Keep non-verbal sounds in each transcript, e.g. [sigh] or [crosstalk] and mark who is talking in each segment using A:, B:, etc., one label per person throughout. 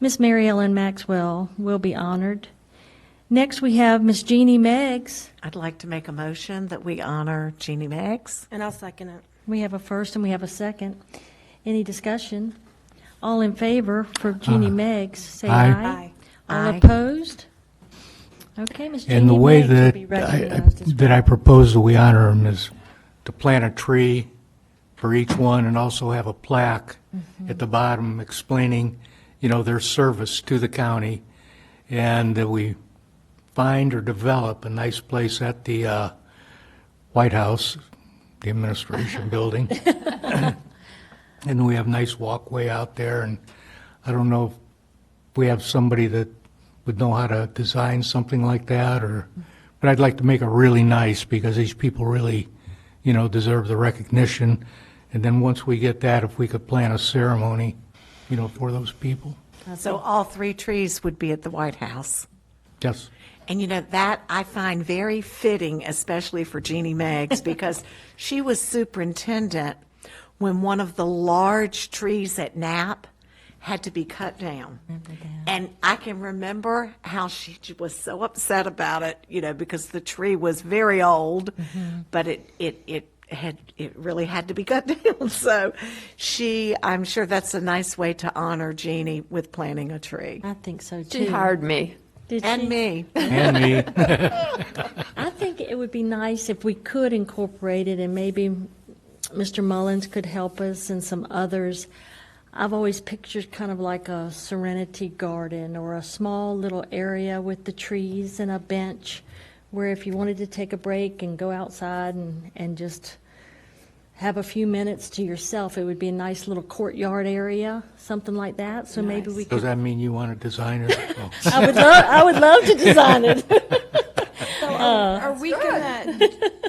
A: Miss Mary Ellen Maxwell will be honored. Next, we have Miss Jeannie Meggs.
B: I'd like to make a motion that we honor Jeannie Meggs.
C: And I'll second it.
A: We have a first and we have a second. Any discussion? All in favor for Jeannie
D: Uh,
A: Meggs, say aye.
C: Aye.
A: All
B: Aye.
A: opposed? Okay, Miss Jeannie
D: And the way
A: Meggs will
D: that,
A: be
D: I-
A: recognized as
D: that I propose that we honor them is to plant a tree for each one and also have a plaque
A: Mm-hmm.
D: at the bottom explaining, you know, their service to the county, and that we find or develop a nice place at the uh, White House,
A: [laughs]
D: the administration building. And we have nice walkway out there, and I don't know if we have somebody that would know how to design something like that, or, but I'd like to make it really nice, because these people really, you know, deserve the recognition. And then once we get that, if we could plan a ceremony, you know, for those people.
B: So all three trees would be at the White House.
D: Yes.
B: And you know, that I find very fitting, especially for Jeannie Meggs, because she was superintendent when one of the large trees at Knapp had to be cut down. And I can remember how she j- was so upset about it, you know, because the tree was very old, but it, it, it had, it really had to be cut [laughs] down. So she, I'm sure that's a nice way to honor Jeannie with planting a tree.
A: I think so
E: She
A: too.
E: hired me.
A: Did
B: And
A: she?
B: me.
D: And me.
A: I think it would be nice if we could incorporate it, and maybe Mr. Mullins could help us and some others. I've always pictured kind of like a serenity garden or a small little area with the trees and a bench where if you wanted to take a break and go outside and, and just have a few minutes to yourself, it would be a nice little courtyard area, something like that. So maybe we could
D: Does that mean you want to design it? Oh.
A: I would love, I would love
D: [laughs]
A: to design it.
E: Oh,
C: Are we gonna,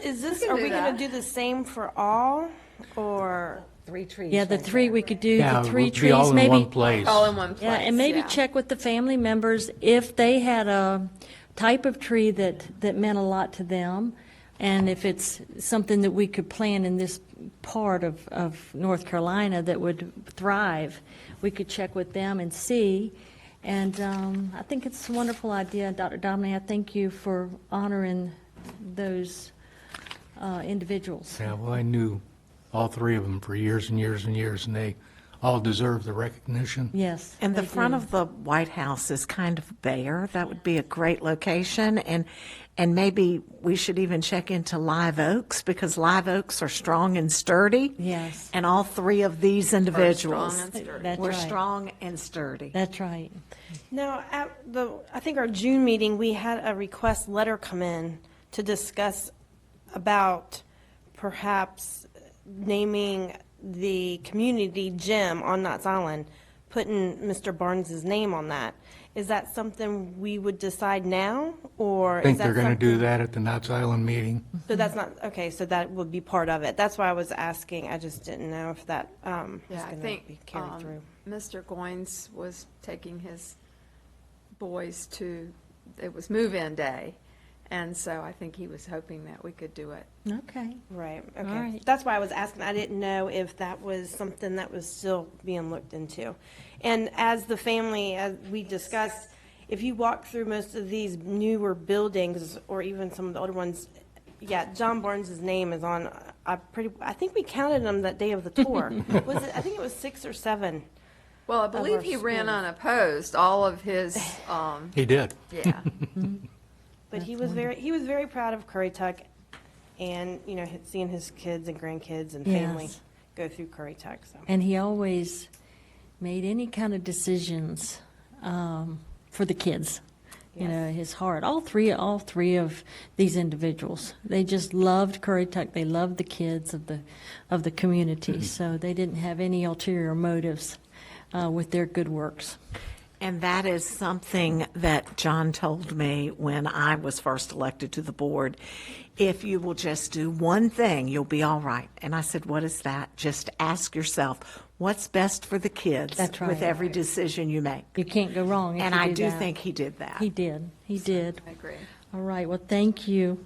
C: is this, are
E: do
C: we gonna
E: that.
C: do the same for all, or?
B: Three trees.
A: Yeah, the three, we could do
D: Yeah,
A: the
D: it
A: three
D: would be all
A: trees,
D: in one
A: maybe.
D: place.
E: All in one place.
A: Yeah, and maybe
E: yeah.
A: check with the family members if they had a type of tree that, that meant a lot to them. And if it's something that we could plant in this part of, of North Carolina that would thrive, we could check with them and see. And um, I think it's a wonderful idea. Dr. Domine, I thank you for honoring those uh, individuals.
D: Yeah, well, I knew all three of them for years and years and years, and they all deserve the recognition.
A: Yes.
B: And the
A: they
B: front
A: do.
B: of the White House is kind of bare. That would be a great location, and and maybe we should even check into live oaks because live oaks are strong and sturdy.
A: Yes.
B: And all three of these individuals
E: and sturdy.
A: That's
B: were
A: right.
B: strong and sturdy.
A: That's right.
C: Now, at the, I think our June meeting, we had a request letter come in to discuss about perhaps naming the community gym on Knott's Island, putting Mr. Barnes's name on that. Is that something we would decide now, or?
D: I
C: is
D: think
C: that
D: they're going to
C: something- Mm-hmm.
D: do that at the Knott's Island meeting.
C: So that's not, okay, so that would be part of it. That's why I was asking. I just didn't know if that, um, was
E: Yeah, I
C: gonna be
E: think
C: carried
E: um,
C: through.
E: Mr. Goines was taking his boys to, it was move-in day, and so I think he was hoping that we could do it.
A: Okay.
C: Right,
A: right.
C: okay. That's why I was asking, I didn't know if that was something that was still being looked into. And as the family, as we discussed, if you walk through most of these newer buildings, or even some of the older ones, yeah, John Barnes's name is on, uh, I pretty, I think we counted them that day of the tour.
E: [laughs]
C: Was it, I think it was six or seven.
E: Well, I
C: our
E: believe he ran
C: schools.
E: unopposed, all of his, um,
D: He did.
E: yeah.
C: But he was very, he was very proud of Curry Tuck and, you know, seeing his kids and grandkids and family
A: Yes.
C: go through Curry Tuck, so.
A: And he always made any kind of decisions um, for the kids. You know, his heart. All three, all three of these individuals, they just loved Curry Tuck. They loved the kids of the of the community. So they didn't have any ulterior motives uh, with their good works.
B: And that is something that John told me when I was first elected to the board. If you will just do one thing, you'll be all right. And I said, What is that? Just ask yourself, what's best for the kids
A: That's right.
B: with every decision you make?
A: You can't go wrong. If
B: And
A: you
B: I
A: do,
B: do
A: that.
B: think he did that.
A: he did. He did.
E: I agree.
A: All right. Well, thank you.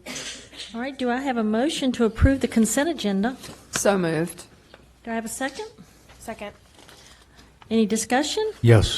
A: All right. Do I have a motion to approve the consent agenda?
E: So moved.
A: Do I have a second?
C: Second.
A: Any discussion?
D: Yes.